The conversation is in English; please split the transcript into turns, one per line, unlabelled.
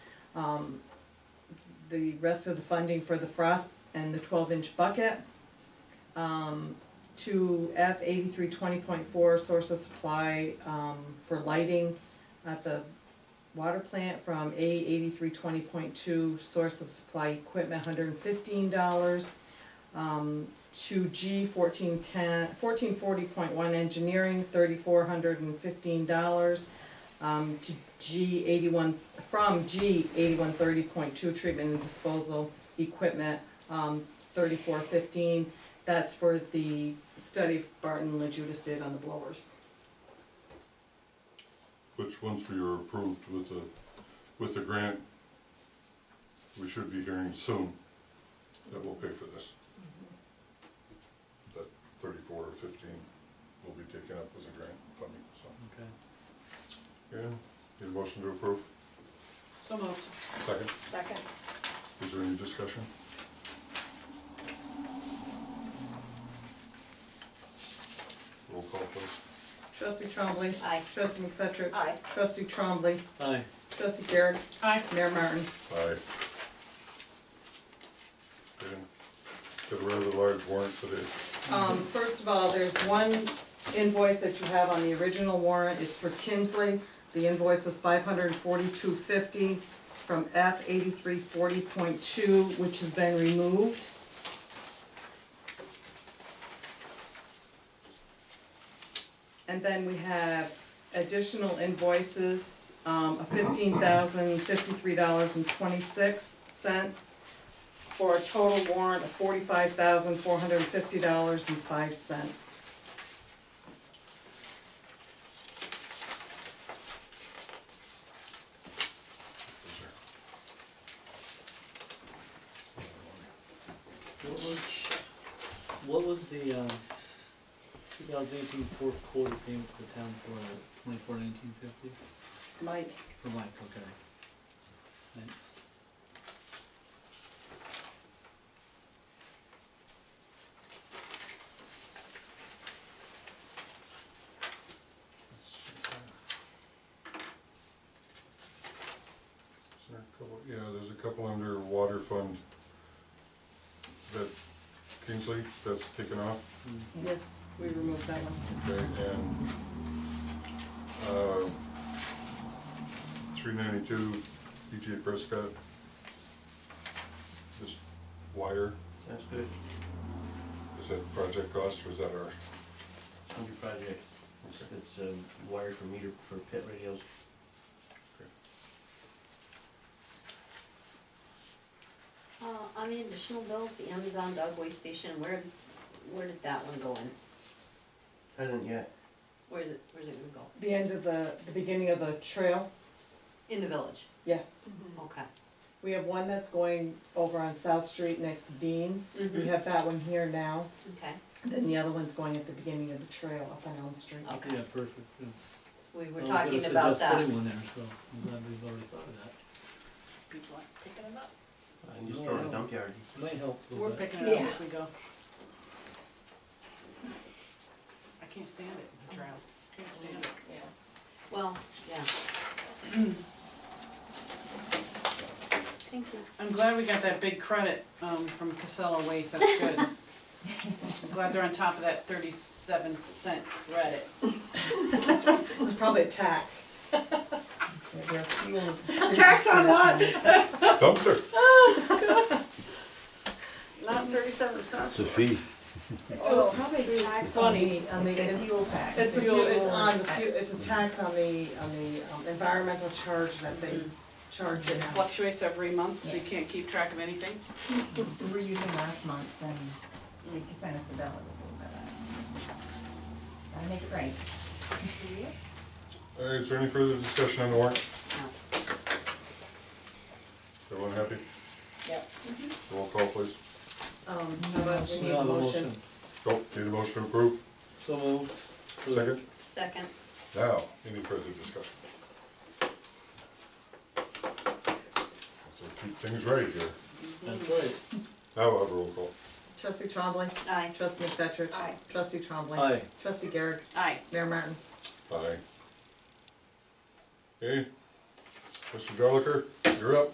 Um, the rest of the funding for the frost and the twelve inch bucket. Um, to F eighty-three twenty point four, source of supply, um, for lighting at the water plant from A eighty-three twenty point two, source of supply equipment, hundred and fifteen dollars. Um, to G fourteen ten, fourteen forty point one engineering, thirty-four hundred and fifteen dollars. Um, to G eighty-one, from G eighty-one thirty point two treatment and disposal equipment, um, thirty-four fifteen. That's for the study Barton and Judas did on the blowers.
Which, once we were approved with the, with the grant, we should be hearing soon that we'll pay for this. That thirty-four or fifteen will be taken up with the grant funding, so.
Okay.
Yeah, need a motion to approve?
So moved.
Second,
Second.
is there any discussion? Roll call, please.
Trustee Trombley.
Aye.
Trustee McFetrich.
Aye.
Trustee Trombley.
Aye.
Trustee Garrett.
Aye.
Mayor Martin.
Aye. Okay, got a rather large warrant today.
Um, first of all, there's one invoice that you have on the original warrant, it's for Kinsley. The invoice is five hundred and forty-two fifty from F eighty-three forty point two, which has been removed. And then we have additional invoices, um, of fifteen thousand fifty-three dollars and twenty-six cents for a total warrant of forty-five thousand, four hundred and fifty dollars and five cents.
What was, what was the, um, two thousand eighteen fourth quarter payment to the town for twenty-four nineteen fifty?
Mike,
For Mike, okay. Thanks.
Is there a couple, yeah, there's a couple under water fund that Kingsley, that's taken off,
Hmm.
Mm.
yes, we removed that one.
okay, and, uh, three ninety-two, EJ Prescott. This wire,
That's good,
is that project cost or is that our,
it's under project, it's, it's um, wired for meter, for pit radios.
Uh, on the additional bills, the Amazon dog waste station, where, where did that one go in?
Hasn't yet.
Where's it, where's it gonna go?
The end of the, the beginning of the trail,
In the village,
yes.
okay.
We have one that's going over on South Street next to Dean's. We
Mhm.
have that one here now.
Okay,
Then the other one's going at the beginning of the trail up on Elm Street.
okay,
Yeah, perfect, that's.
so we
I
were
was gonna
talking
suggest
about that.
Putting one there, so I'm glad we've already thought of that.
People aren't picking it up.
I can just throw it in the dump yard.
Might help a
We're
little bit.
picking it up
Yeah.
as we go. I can't stand it, the drought. Can't stand it.
Yeah. Well, yeah. Thank you.
I'm glad we got that big credit, um, from Casella Waste, that's good. I'm glad they're on top of that thirty-seven cent credit.
It was probably a tax.
Tax on what?
dumpster?
Not thirty-seven
It's
cents.
a fee.
Oh, probably a tax on the, on the.
fuel tax.
It's a, fuel- it's on the, fu- it's a tax on the, on the um, environmental charge that they charge
It
it.
fluctuates every month, so you
Yes.
can't keep track of anything.
We were using last month's and they sent us the bill, it was a little bit less. Gotta make it right.
All right, is there any further discussion on the warrant?
No.
Everyone happy? Mm-hmm.
Yep.
Roll call, please.
Um, how about we
So
need
now
a
the
motion?
Oh, need a motion to approve?
So moved. for the-
Second?
Second,
Now, any further discussion? So keep things right here.
That's right.
Now I'll have a roll call.
Trustee Trombley.
aye.
Trustee McFetrich.
Aye.
Trustee Trombley.
Aye.
Trustee Garrett.
Aye.
Mayor Martin.
Aye. Okay. Mr. Joliker, you're up.